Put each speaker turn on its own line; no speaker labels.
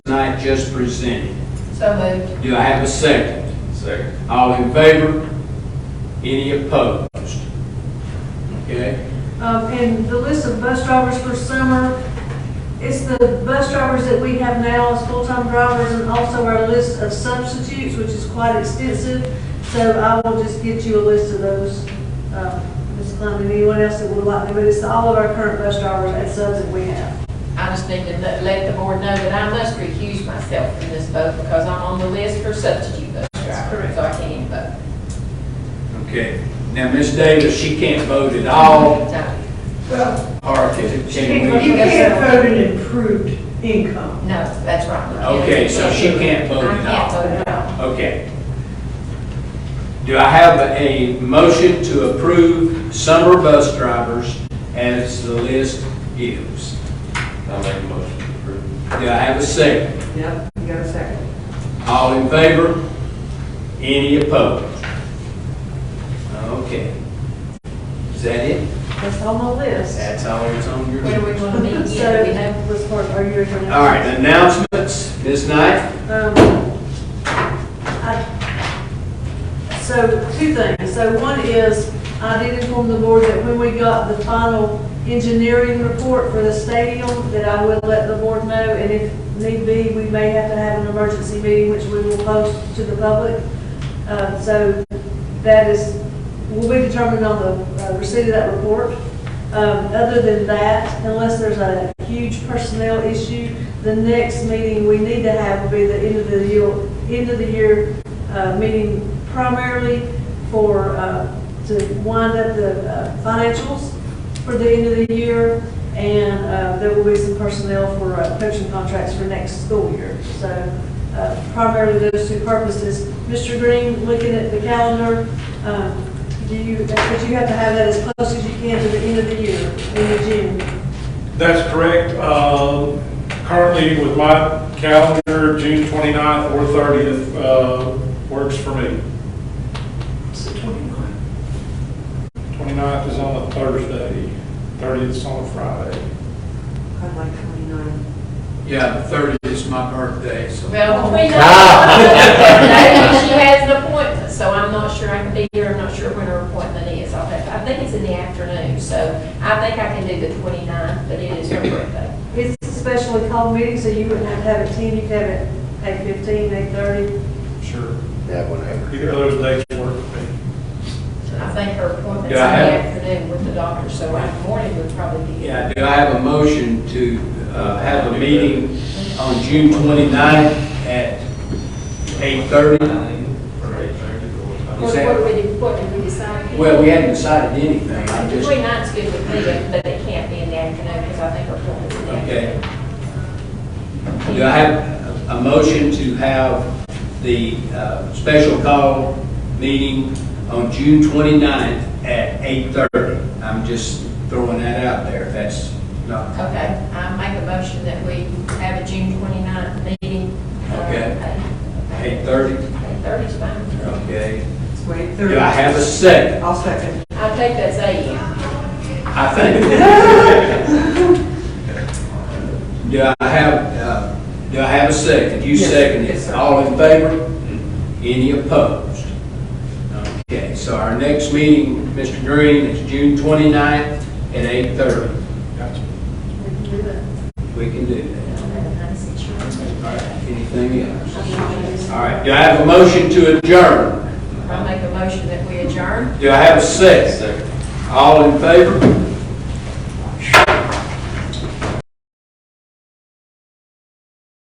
tonight just presented.
So moved.
Do I have a second?
Second.
All in favor? Any opposed? Okay?
Um, And the list of bus drivers for summer, it's the bus drivers that we have now as full-time drivers and also our list of substitutes, which is quite extensive. So I will just get you a list of those, uh, Ms. Clem, and anyone else that would like to, but it's all of our current bus drivers and subs that we have.
I just need to let let the board know that I must recuse myself from this vote because I'm on the list for substitute bus driver,
correct.
so I can't vote.
Okay. Now, Ms. Davis, she can't vote at all,
No,
Well,
or can
She can't
can
vote.
we?
you can't vote an improved income.
No, that's right.
Okay, so she can't vote at
I
all.
can't vote at all.
Okay. Do I have a motion to approve summer bus drivers as the list gives?
I'll make a motion to approve.
Do I have a second?
Yep, you got a second.
All in favor? Any opposed? Okay. Is that it?
That's on the list.
That's all that's on your
Where
list?
do we want to meet yet? Do we know?
So, was part of your.
All right, announcements, Ms. Knight?
Um, I- So, two things. So one is, I did inform the board that when we got the final engineering report for the stadium, that I would let the board know, and if need be, we may have to have an emergency meeting, which we will post to the public. Uh, So that is, will be determined on the uh, receipt of that report. Um, Other than that, unless there's a huge personnel issue, the next meeting we need to have will be the end of the year, end of the year uh, meeting primarily for, uh, to wind up the uh, financials for the end of the year, and uh, there will be some personnel for uh, coaching contracts for next school year. So uh, primarily those two purposes. Mr. Green, looking at the calendar, um, do you, but you have to have that as close as you can to the end of the year, in the June.
That's correct. Um, Currently, with my calendar, June 29th or 30th uh, works for me.
It's the 29.
29th is on a Thursday, 30th is on a Friday.
I'd like 29.
Yeah, thirty is my birthday, so.
Well, between
Ah.
us, she has an appointment, so I'm not sure I can be here, I'm not sure when her appointment is. I'll have, I think it's in the afternoon, so I think I can do the 29th, but it is her birthday.
It's a specially called meeting, so you wouldn't have to have it 10, you could have it 8:15, 8:30.
Sure.
Yeah, whatever.
Either of those dates work for me.
I think her appointment's in
Do
the
I have-
afternoon with the doctor, so our morning would probably be.
Yeah, do I have a motion to uh, have a meeting on June 29th at 8:30?
What, what do we, do- what did we decide?
Well, we hadn't decided anything, I just,
Between nine's good with me, but it can't be in the afternoon because I think her appointment's in the
Okay.
afternoon.
do I have a motion to have the uh, special call meeting on June 29th at 8:30? I'm just throwing that out there, if that's not,
Okay, I make a motion that we have a June 29th meeting. uh,
Okay.
at-
8:30?
Eight thirty's fine.
Okay.
It's way
Do I
30.
have a second?
I'll second.
I'll take that's eight.
I think. Do I have, uh, do I have a second? You
Yes.
second
Yes,
it.
sir. Mm-hmm.
All in favor? Any opposed? Okay, so our next meeting, Mr. Green, is June 29th at 8:30.
Gotcha.
We can do that. All right, anything else?
I'll
All right, do I have a motion to adjourn?
make a motion that we adjourn.
Do I have a second?
Second.
All in favor?